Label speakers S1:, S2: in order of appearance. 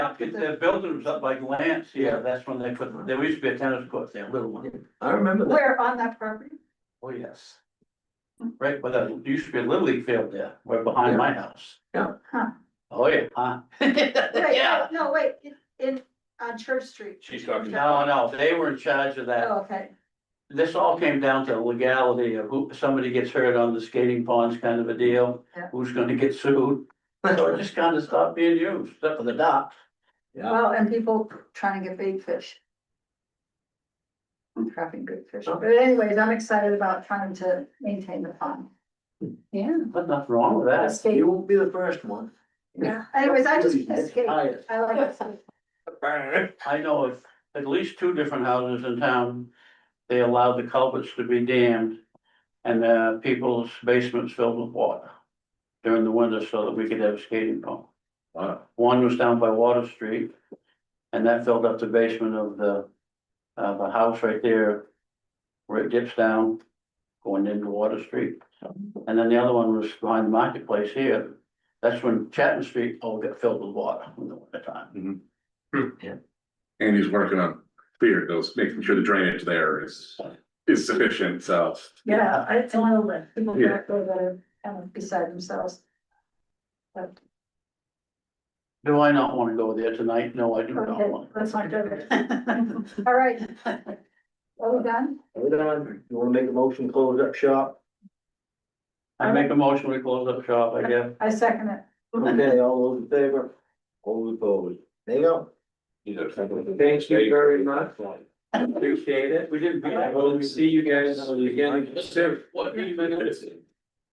S1: If They're building them up by Lance, yeah, that's when they put, there used to be a tennis court there, little one.
S2: I remember that.
S3: Where on that property?
S1: Oh, yes. Right, but there used to be a little league field there, right
S2: Yeah.
S1: behind my house.
S2: Yeah.
S3: Huh.
S1: Oh, yeah, huh?
S3: Wait,
S1: Yeah.
S3: No, wait, in, in, on Church Street.
S4: She's talking-
S1: No, no, they were in charge of that.
S3: Oh, okay,
S1: This all came down to legality of who, somebody gets hurt on the skating ponds kind of a deal,
S3: Yeah.
S1: who's gonna get sued. So it just kind of stopped being used, except for the dock.
S2: Yeah.
S3: well, and people trying to get big fish. I'm trapping good fish,
S2: Oh.
S3: but anyways, I'm excited about trying to maintain the pond. Yeah.
S1: But nothing wrong with that.
S3: Skate.
S2: You won't be the first one.
S3: Yeah, anyways, I just
S2: It's
S3: escaped,
S2: highest.
S3: I like it.
S1: I know of at least two different houses in town, they allow the culverts to be dammed. And uh people's basements filled with water during the winter so that we could have a skating pump.
S4: Uh,
S2: Wow.
S1: One was down by Water Street. And that filled up the basement of the, uh, the house right there. Where it dips down, going into Water Street. And then the other one was behind the marketplace here. That's when Chatham Street all got filled with water in the winter time.
S4: Andy's working on clear those, making sure the drainage there is, is sufficient, so.
S3: Yeah, I tell them, people
S4: Yeah.
S3: back there that are kind of beside themselves. But,
S1: Do I not wanna go there tonight? No, I do not
S3: okay,
S1: want.
S3: let's not do it, all right. Are we done?
S2: Hold on, you wanna make a motion, close up shop?
S1: I make a motion, we close up shop, I guess.
S3: I second it.
S2: Okay, all those in favor? All opposed? There you go. Thank you very much. Appreciate it.
S1: We didn't.
S2: I will see you guys again.
S1: What, even minutes?